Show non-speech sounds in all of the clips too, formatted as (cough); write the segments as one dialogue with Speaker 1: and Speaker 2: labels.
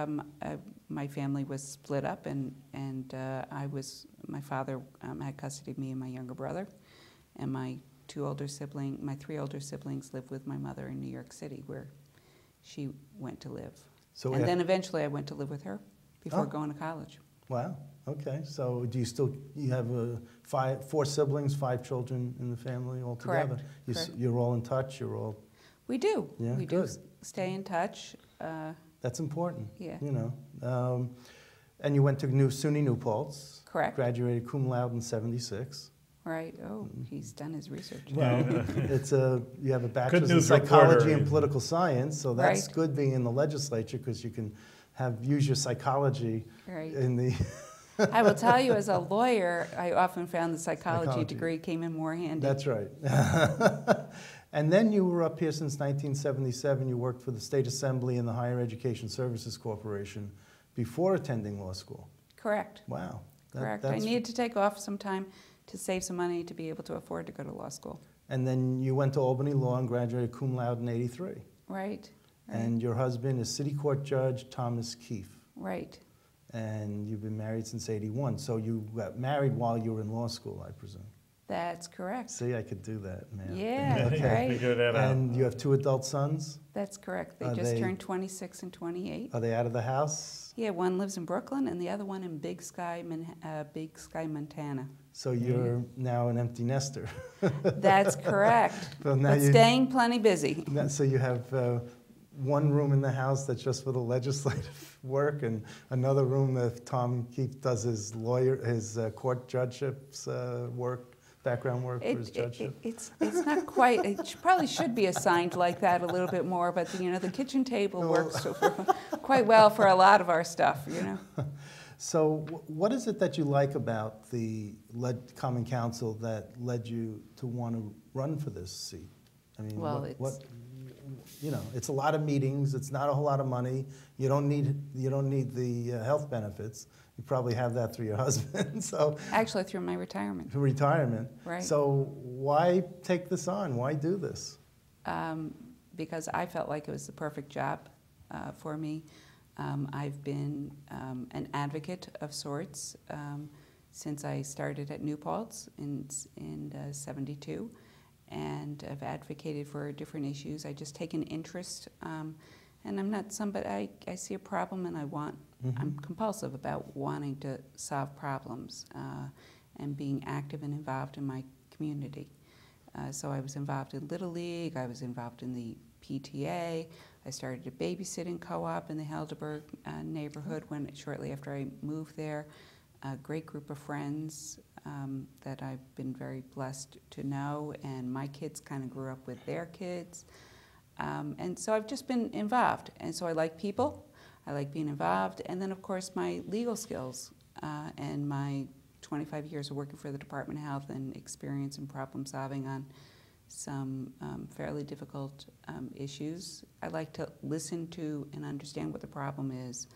Speaker 1: Um, uh, My family was split up, and, and uh, I was, my father um, had custody of me and my younger brother, and my two older siblings, my three older siblings lived with my mother in New York City, where she went to live.
Speaker 2: So
Speaker 1: And
Speaker 2: af-
Speaker 1: then eventually I went to live with her before
Speaker 2: Oh.
Speaker 1: going to college.
Speaker 2: Wow, okay, so do you still, you have uh, five, four siblings, five children in the family altogether?
Speaker 1: Correct,
Speaker 2: You s-
Speaker 1: correct.
Speaker 2: You're all in touch, you're all,
Speaker 1: We do.
Speaker 2: Yeah,
Speaker 1: We do
Speaker 2: good.
Speaker 1: s- stay in touch, uh,
Speaker 2: that's important,
Speaker 1: yeah,
Speaker 2: you know. Um, And you went to New SUNY New Paltz,
Speaker 1: correct,
Speaker 2: graduated cum laude in 76.
Speaker 1: right? Oh,
Speaker 2: Mhm.
Speaker 1: he's done his research.
Speaker 2: Well, (laughs) it's a, you have a bachelor's in
Speaker 3: news reporter,
Speaker 2: psychology and
Speaker 3: you-
Speaker 2: political science, so that's
Speaker 1: Right.
Speaker 2: good being in the legislature because you can have, use your psychology
Speaker 1: Right.
Speaker 2: (laughs) in the,
Speaker 1: I will tell you, as a lawyer, I often found the psychology
Speaker 2: Psychology.
Speaker 1: degree came in more handy.
Speaker 2: That's right. (laughs) and then you were up here since 1977. You worked for the State Assembly and the Higher Education Services Corporation before attending law school.
Speaker 1: Correct,
Speaker 2: Wow. That-
Speaker 1: correct. I
Speaker 2: that's-
Speaker 1: needed to take off some time to save some money to be able to afford to go to law school.
Speaker 2: And then you went to Albany Law and graduated cum laude in 83.
Speaker 1: Right, right,
Speaker 2: And your husband is City Court Judge Thomas Keefe.
Speaker 1: right.
Speaker 2: And you've been married since 81. So you got married while you were in law school, I presume.
Speaker 1: That's correct.
Speaker 2: See, I could do that, man.
Speaker 1: Yeah,
Speaker 2: (laughs) okay.
Speaker 1: right.
Speaker 3: Figure that out.
Speaker 2: And you have two adult sons?
Speaker 1: That's correct. They
Speaker 2: Are
Speaker 1: just
Speaker 2: they-
Speaker 1: turned 26 and 28.
Speaker 2: Are they out of the house?
Speaker 1: Yeah, one lives in Brooklyn and the other one in Big Sky, Mon- uh, Big Sky, Montana.
Speaker 2: So
Speaker 1: Mm-hmm.
Speaker 2: you're now an empty nester. (laughs)
Speaker 1: (laughs) That's correct.
Speaker 2: So now
Speaker 1: But
Speaker 2: you,
Speaker 1: staying plenty (laughs) busy.
Speaker 2: now- so you have uh, one room in the house that's just for the legislative (laughs) work, and another room that Tom Keefe does his lawyer, his uh, court judgeships uh, work, background work
Speaker 1: It-
Speaker 2: for his
Speaker 1: it- it-
Speaker 2: judgeship.
Speaker 1: It's, it's not quite, it sh- probably should be assigned like that a little bit more, but, you know, the kitchen table works so- (laughs) quite well for a lot of our stuff, you know?
Speaker 2: So wh- what is it that you like about the led, Common Council that led you to want to run for this seat? I mean,
Speaker 1: Well,
Speaker 2: what,
Speaker 1: it's-
Speaker 2: what- you know, it's a lot of meetings. It's not a whole lot of money. You don't need you don't need the uh, health benefits. You probably have that through your (laughs) husband. so
Speaker 1: Actually, through my retirement.
Speaker 2: retirement.
Speaker 1: Right.
Speaker 2: So why take this on? Why do this?
Speaker 1: um, because I felt like it was the perfect job uh, for me. Um, I've been um, an advocate of sorts um, since I started at New Paltz in in uh, '72, and I've advocated for different issues. I just take an interest, um, and I'm not somebody. I, I see a problem, and I want.
Speaker 2: Mm-hmm.
Speaker 1: I'm compulsive about wanting to solve problems uh, and being active and involved in my community. Uh, so I was involved in Little League, I was involved in the PTA, I started a babysitting co op in the Helderberg uh, neighborhood when, shortly after I moved there. A great group of friends um, that I've been very blessed to know, and my kids kind of grew up with their kids. Um, and so I've just been involved. And so I like people, I like being involved, and then, of course, my legal skills uh, and my 25 years of working for the Department of Health and experience in problem solving on some um, fairly difficult um, issues. I like to listen to and understand what the problem is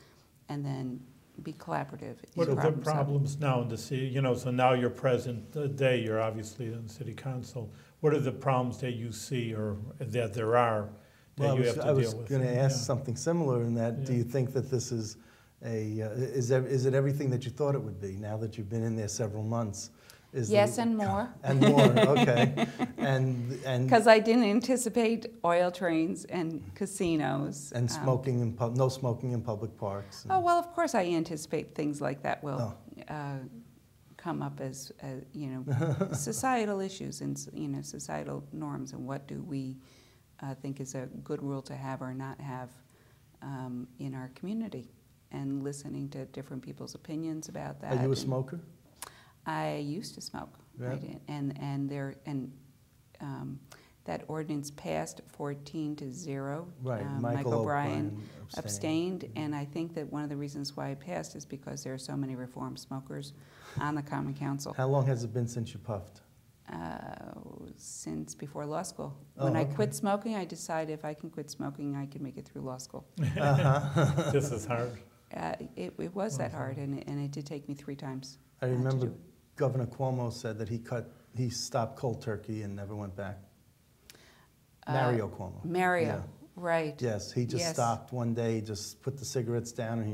Speaker 1: and then be collaborative. in
Speaker 3: What are the
Speaker 1: problem solving.
Speaker 3: problems now in the city, you know, so now you're present uh, day, you're obviously in city council. What are the problems that you see or that there are that
Speaker 2: Well, I
Speaker 3: you
Speaker 2: was,
Speaker 3: have to
Speaker 2: I
Speaker 3: deal
Speaker 2: was
Speaker 3: with?
Speaker 2: going to ask
Speaker 3: Yeah.
Speaker 2: something similar in that, do
Speaker 3: Yeah.
Speaker 2: you think that this is a, uh, is, ev- is it everything that you thought it would be now that you've been in there several months? Is the-
Speaker 1: Yes, and more.
Speaker 2: And more,
Speaker 1: (laughs)
Speaker 2: okay. And, and,
Speaker 1: Because I didn't anticipate oil trains and casinos.
Speaker 2: and
Speaker 1: um,
Speaker 2: smoking in, pub- no smoking in public parks. and-
Speaker 1: Oh, well, of course, I anticipate things like that will
Speaker 2: Oh.
Speaker 1: uh, come up as, as, you
Speaker 2: (laughs)
Speaker 1: know, societal issues and, s- you know, societal norms and what do we uh, think is a good rule to have or not have um, in our community and listening to different people's opinions about that.
Speaker 2: Are you a
Speaker 1: and-
Speaker 2: smoker?
Speaker 1: I used to smoke. I
Speaker 2: Yeah.
Speaker 1: did. And, and there, and um, that ordinance passed 14 to 0.
Speaker 2: Right,
Speaker 1: Um,
Speaker 2: Michael
Speaker 1: O'Brien
Speaker 2: O'Brien abstained.
Speaker 1: abstained, and I think that one of the reasons why it passed is because there are so many reform smokers on the Common Council
Speaker 2: How long has it been since you puffed?
Speaker 1: uh, since before law school. When
Speaker 2: Oh,
Speaker 1: I
Speaker 2: okay.
Speaker 1: quit smoking, I decided if I can quit smoking, I can make it through law school.
Speaker 2: uh-huh.
Speaker 3: (laughs) This is hard.
Speaker 1: Uh, It, it was that
Speaker 3: Wow.
Speaker 1: hard, and it, and it did take me three times.
Speaker 2: I
Speaker 1: uh, to
Speaker 2: remember
Speaker 1: do it.
Speaker 2: Governor Cuomo said that he cut, he stopped cold turkey and never went back.
Speaker 1: Uh,
Speaker 2: Mario Cuomo.
Speaker 1: Mario,
Speaker 2: Yeah.
Speaker 1: Right.
Speaker 2: Yes, he just
Speaker 1: Yes.
Speaker 2: stopped one day, just put the cigarettes down, and he